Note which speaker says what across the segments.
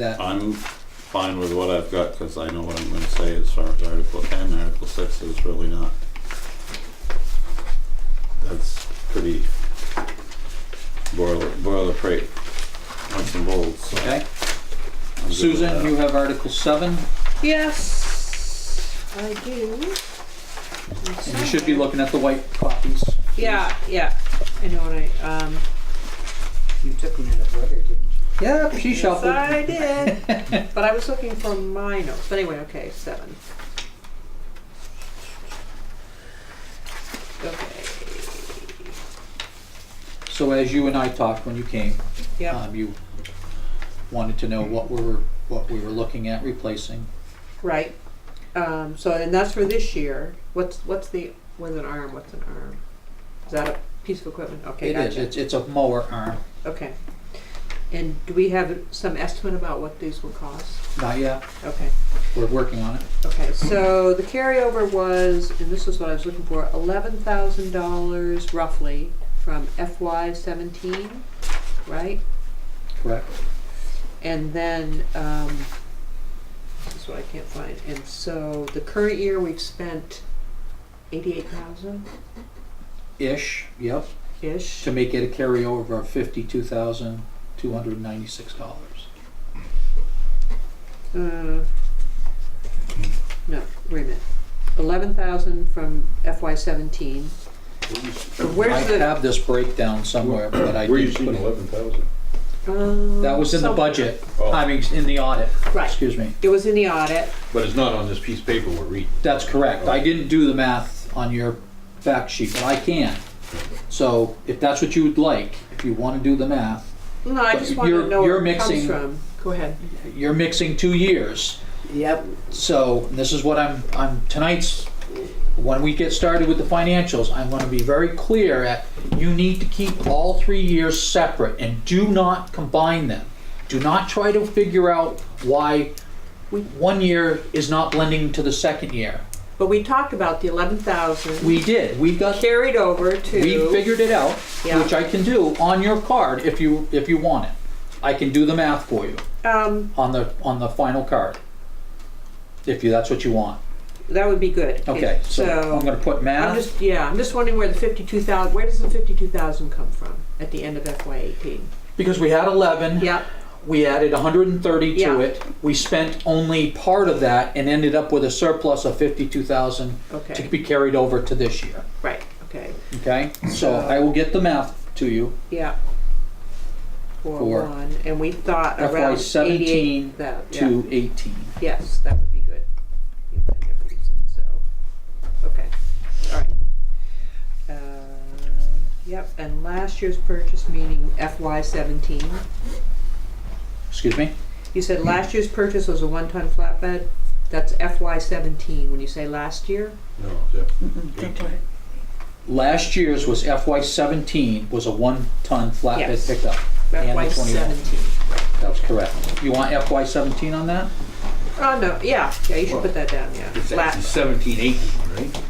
Speaker 1: that,
Speaker 2: I'm fine with what I've got, cause I know what I'm gonna say as far as Article ten, Article six is really not. That's pretty boiler, boilerplate, nuts and bolts, so.
Speaker 1: okay?
Speaker 2: I'm good with
Speaker 1: Susan,
Speaker 2: that.
Speaker 1: you have Article seven,
Speaker 3: Yes, I do.
Speaker 1: and you should be looking at the white copies.
Speaker 3: Yeah, yeah. I know what I, um,
Speaker 4: You took them in order, didn't you?
Speaker 1: Yep, she
Speaker 3: yes,
Speaker 1: shuffled.
Speaker 3: I did. But I was looking for my notes. But anyway, okay, seven. Okay,
Speaker 1: So as you and I talked when you came,
Speaker 3: yep,
Speaker 1: um, you wanted to know what we were, what we were looking at replacing.
Speaker 3: right. Um, so, and that's for this year. What's, what's the, what's an arm? What's an arm? Is that a piece of equipment? Okay,
Speaker 1: It is,
Speaker 3: gotcha.
Speaker 1: it's, it's a mower arm,
Speaker 3: Okay. And do we have some estimate about what these will cost?
Speaker 1: not yet,
Speaker 3: Okay.
Speaker 1: we're working on it.
Speaker 3: Okay, so the carryover was, and this is what I was looking for, eleven thousand dollars roughly from FY seventeen, right?
Speaker 1: Correct.
Speaker 3: And then, um, this is what I can't find, and so the current year we've spent eighty-eight thousand-ish.
Speaker 1: Ish, yep, to make it a carryover of fifty-two thousand, two hundred and ninety-six dollars.
Speaker 3: Uh, No, wait a minute, eleven thousand from FY seventeen,
Speaker 1: I
Speaker 3: where's the?
Speaker 1: have this breakdown somewhere, but I
Speaker 5: Where you
Speaker 1: didn't
Speaker 5: seen
Speaker 1: put it.
Speaker 5: eleven thousand?
Speaker 3: um,
Speaker 1: That was in the
Speaker 3: somewhere.
Speaker 1: budget,
Speaker 5: Oh.
Speaker 1: I mean, in the audit,
Speaker 3: Right,
Speaker 1: excuse me.
Speaker 3: it was in the audit,
Speaker 5: But it's not on this piece of paper we're reading.
Speaker 1: That's correct. I didn't do the math on your fact sheet, but I can. So if that's what you would like, if you want to do the math,
Speaker 3: No, I
Speaker 1: But
Speaker 3: just want to
Speaker 1: you're-
Speaker 3: know
Speaker 1: you're
Speaker 3: where it
Speaker 1: mixing-
Speaker 3: comes from. Go ahead.
Speaker 1: you're mixing two years.
Speaker 4: Yep.
Speaker 1: So this is what I'm, I'm, tonight's, when we get started with the financials, I'm going to be very clear at, you need to keep all three years separate and do not combine them. Do not try to figure out why one year is not blending to the second year.
Speaker 3: But we talked about the eleven thousand
Speaker 1: We did, we got
Speaker 3: carried over to.
Speaker 1: We figured it out,
Speaker 3: Yeah.
Speaker 1: which I can do on your card if you, if you want it. I can do the math for you
Speaker 3: Um,
Speaker 1: on the, on the final card. If you, that's what you want.
Speaker 3: that would be good.
Speaker 1: Okay, so I'm
Speaker 3: So,
Speaker 1: gonna put
Speaker 3: I'm
Speaker 1: math,
Speaker 3: just, yeah, I'm just wondering where the fifty-two thousand. where does the fifty-two thousand come from at the end of FY eighteen?
Speaker 1: because we had eleven.
Speaker 3: Yep,
Speaker 1: We added hundred and thirty
Speaker 3: Yeah.
Speaker 1: to it. We spent only part of that and ended up with a surplus of fifty-two thousand to
Speaker 3: okay,
Speaker 1: be carried over to this year,
Speaker 3: right, okay,
Speaker 1: okay? So I will get the math to you.
Speaker 3: yeah.
Speaker 1: For
Speaker 3: Four one, and we thought
Speaker 1: FY
Speaker 3: around eighty-eight
Speaker 1: 17
Speaker 3: thousand,
Speaker 1: to 18.
Speaker 3: yes, that would be good. You've been there pretty soon, So, okay, all right. Uh, Yep, and last year's purchase, meaning FY seventeen.
Speaker 1: Excuse me?
Speaker 3: You said last year's purchase was a one-ton flatbed. That's FY seventeen. When you say last year,
Speaker 5: No, it's
Speaker 1: Last year's was FY seventeen, was a one-ton flatbed
Speaker 3: Yes.
Speaker 1: pickup. And
Speaker 3: FY
Speaker 1: the 21.
Speaker 3: seventeen.
Speaker 1: That's correct. You want FY seventeen on that?
Speaker 3: Oh, no, yeah, yeah, you should put that down, yeah.
Speaker 5: it's actually
Speaker 3: Flat,
Speaker 5: seventeen eighteen, right?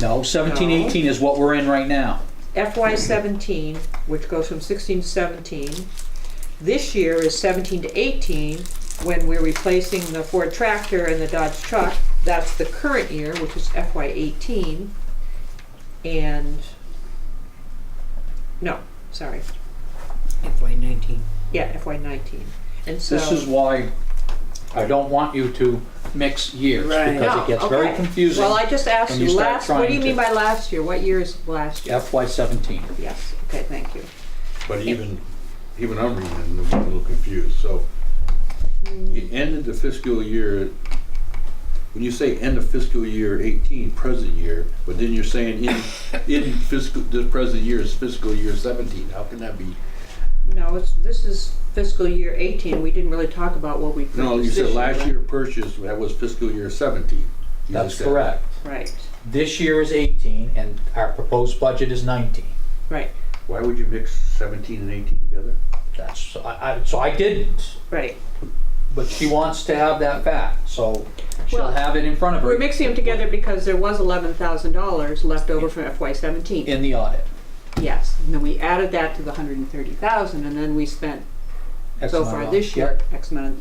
Speaker 1: No, seventeen,
Speaker 3: No.
Speaker 1: eighteen is what we're in right now.
Speaker 3: FY seventeen, which goes from sixteen to seventeen. This year is seventeen to eighteen, when we're replacing the Ford tractor and the Dodge truck. That's the current year, which is FY eighteen. And, no, sorry,
Speaker 4: FY nineteen.
Speaker 3: yeah, FY nineteen. And so.
Speaker 1: This is why I don't want you to mix years,
Speaker 4: Right.
Speaker 1: because
Speaker 3: No,
Speaker 1: it gets very
Speaker 3: Oh, okay.
Speaker 1: confusing.
Speaker 3: Well, I just asked
Speaker 1: when you
Speaker 3: you
Speaker 1: start
Speaker 3: last, what do
Speaker 1: trying
Speaker 3: you mean
Speaker 1: to-
Speaker 3: by last year? What year is last year?
Speaker 1: FY seventeen.
Speaker 3: Yes, okay, thank you.
Speaker 5: But even, even I'm reading it, and I'm a little confused, so. You ended the fiscal year, when you say end of fiscal year eighteen, present year, but then you're saying in, in fiscal, the present year is fiscal year seventeen, how can that be?
Speaker 3: No, it's, this is fiscal year eighteen, we didn't really talk about what we
Speaker 5: No, you
Speaker 3: purchased
Speaker 5: said
Speaker 3: this year,
Speaker 5: last
Speaker 3: right?
Speaker 5: year purchase, that was fiscal year seventeen. You
Speaker 1: That's
Speaker 5: just said-
Speaker 1: correct.
Speaker 3: Right,
Speaker 1: This year is eighteen, and our proposed budget is nineteen.
Speaker 3: right,
Speaker 5: Why would you mix seventeen and eighteen together?
Speaker 1: That's, I, I, so I didn't,
Speaker 3: right.
Speaker 1: but she wants to have that back, so she'll
Speaker 3: Well,
Speaker 1: have it in front of her.
Speaker 3: We're mixing them together because there was eleven thousand dollars left over from FY seventeen.
Speaker 1: In the audit.
Speaker 3: Yes, and then we added that to the hundred and thirty thousand, and then we spent
Speaker 1: X
Speaker 3: So
Speaker 1: amount
Speaker 3: far
Speaker 1: off. Yep.
Speaker 3: this year, X amount